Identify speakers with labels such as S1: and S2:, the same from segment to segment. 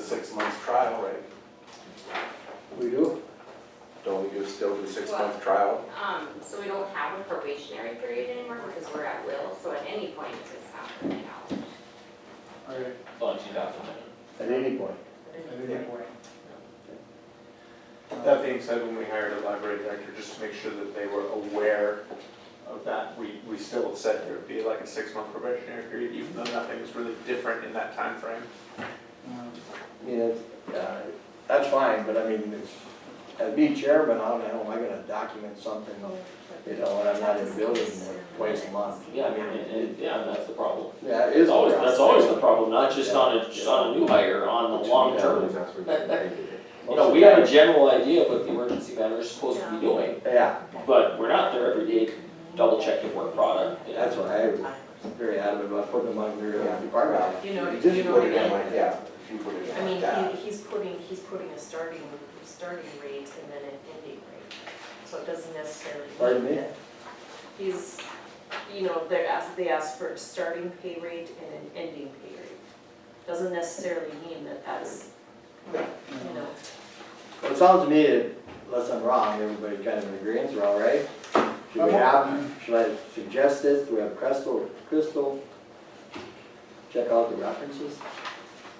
S1: six months trial, right?
S2: We do?
S1: Don't you still do six
S3: Well-
S1: month trial?
S3: Um, so we don't have a probationary period anymore because we're at will, so at any point, it's not really out.
S2: All right.
S4: But you have to win.
S2: At any point.
S5: That being said, when we hired a library director, just to make sure that they were aware of that, we, we still said there would be like a six-month probationary period, even though nothing was really different in that time frame.
S2: Yeah, uh, that's fine, but I mean, it's- as being chairman, how the hell am I gonna document something, you know, when I'm not in the building twice a month?
S4: Yeah, I mean, and, and, yeah, that's the problem.
S2: Yeah,
S4: It's
S2: it is.
S4: always, that's always the problem, not just on a, just on a new hire, on the long term. You know, we have a general idea of what the emergency manager is supposed to be doing,
S2: Yeah,
S4: but we're not there every day double checking work product. you know.
S2: that's why I was very adamant about putting them under your department.
S6: You know,
S1: You
S6: you
S1: just
S6: know
S1: put
S6: what
S1: it in
S6: I mean?
S1: like, yeah, if you put it
S6: I
S1: in like that.
S6: mean, he, he's putting, he's putting a starting, starting rate and then an ending rate, so it doesn't necessarily. mean
S2: Pardon me?
S6: that He's, you know, they're asked, they ask for a starting pay rate and an ending pay rate. Doesn't necessarily mean that that's, you know,
S2: Well, it sounds to me, that, unless I'm wrong, everybody kind of agrees, we're all right? Should we have, should I suggest this, do we have Crystal, Crystal? Check out the references?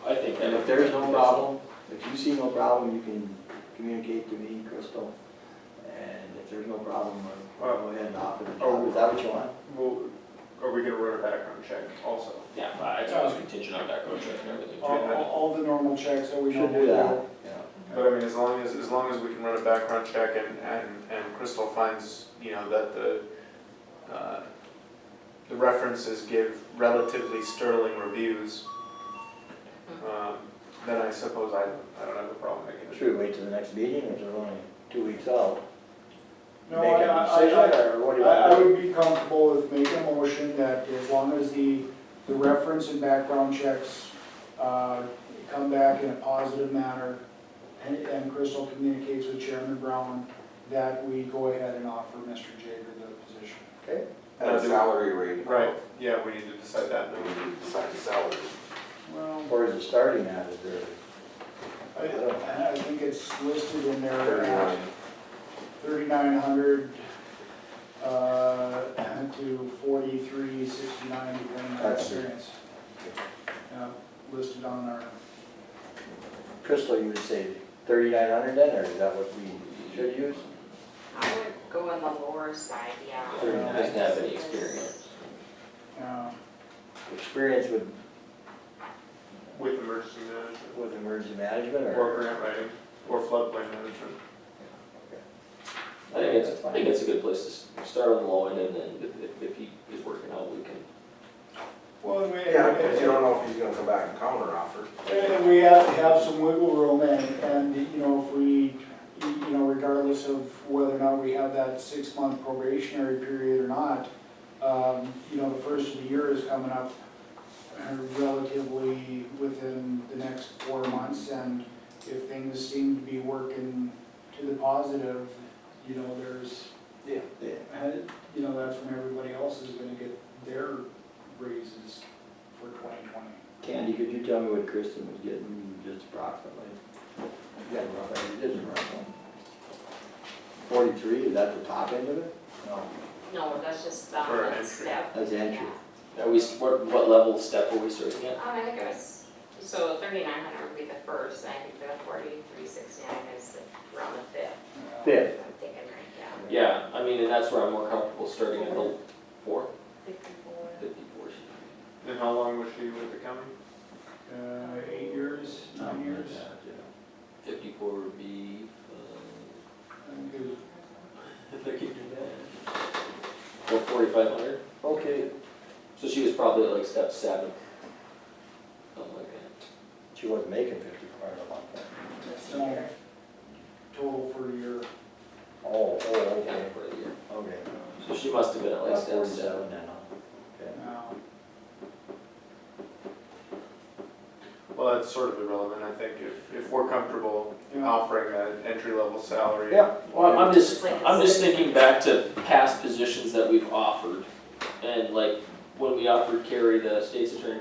S4: I think.
S2: And if there's no problem, if you see no problem, you can communicate to me, Crystal. And if there's no problem, I'll go ahead and offer the job, is that what you want?
S5: Well, are we gonna run a background check also?
S4: Yeah, I, I was contingent on background check and everything.
S7: All, all- all the normal checks that we
S2: We should
S7: normally
S2: do that,
S7: do.
S2: yeah.
S5: But I mean, as long as, as long as we can run a background check and, and, and Crystal finds, you know, that the, uh, the references give relatively sterling reviews, um, then I suppose I, I don't have a problem making it.
S2: Should we wait till the next meeting, which is only two weeks out?
S7: No,
S2: Make
S7: I,
S2: a
S7: I, I,
S2: decision, or what do you
S7: I- I
S2: want?
S7: would be comfortable with making a motion that as long as the, the reference and background checks, uh, come back in a positive manner, and, and Crystal communicates with Chairman Brown, that we go ahead and offer Mr. Jager the position.
S1: At a salary rate.
S5: Right, yeah, we need to decide that.
S1: Then we need to decide the salary.
S7: Well,
S2: Or is it starting at, is there?
S7: I, I think it's listed in there
S1: Thirty-one.
S7: at thirty-nine hundred, uh, to forty-three sixty-nine, depending on
S2: That's it.
S7: experience. Yeah, listed on our,
S2: Crystal, you would say thirty-nine hundred then, or is that what we should use?
S3: I would go on the lower side, yeah.
S2: Sure.
S4: Doesn't have any experience.
S7: uh,
S2: Experience with,
S5: With emergency management,
S2: with emergency management
S5: or
S2: or?
S5: grant writing, or floodplain management.
S4: I think it's, I think it's a good place to s- start on the low end and then if- if, if he is working out, we can.
S7: well, we,
S1: Yeah, because you
S7: and
S1: don't know if he's gonna come back and counter offer.
S7: and we have to have some wiggle room and, and, you know, if we, you know, regardless of whether or not we have that six-month probationary period or not, um, you know, the first of the year is coming up uh, relatively within the next four months, and if things seem to be working to the positive, you know, there's,
S2: Yeah.
S7: And, you know, that's when everybody else is gonna get their raises for twenty twenty.
S2: Candy, could you tell me what Kristen was getting just approximately? You got a rough idea, it is a rough one. Forty-three, is that the top end of it? No,
S3: No, that's just, um,
S5: For
S3: that
S5: entry.
S3: step.
S2: that's the entry.
S4: Are we, s- what, what level of step are we starting at?
S3: Um, I think it was, so thirty-nine hundred would be the first, and I think the forty-three sixty-nine is the- around the fifth,
S2: Fifth.
S3: I'm thinking, right, yeah.
S4: Yeah, I mean, and that's where I'm more comfortable starting at the four,
S6: fifty-four.
S4: fifty-four.
S5: And how long was she with the county?
S7: Uh, eight years, nine
S2: Something like
S7: years,
S2: that, yeah.
S4: Fifty-four would be, um,
S7: I think it was-
S4: if I could do that. Or forty-five hundred,
S2: Okay,
S4: so she was probably like step seven. Something like that.
S2: she wasn't making fifty-four a month then.
S7: it's not total for your,
S2: Oh, oh, okay,
S4: Yeah, for the year.
S2: okay.
S4: So she must have been at like
S2: About
S4: step seven.
S2: forty-seven then, huh? Okay.
S7: uh,
S5: Well, that's sort of irrelevant, I think, if, if we're comfortable
S7: you know,
S5: offering an entry-level salary.
S2: Yeah.
S4: Well, I'm just,
S6: It's like a
S4: I'm just
S6: six.
S4: thinking back to past positions that we've offered, and like, when we offered Carrie the state's attorney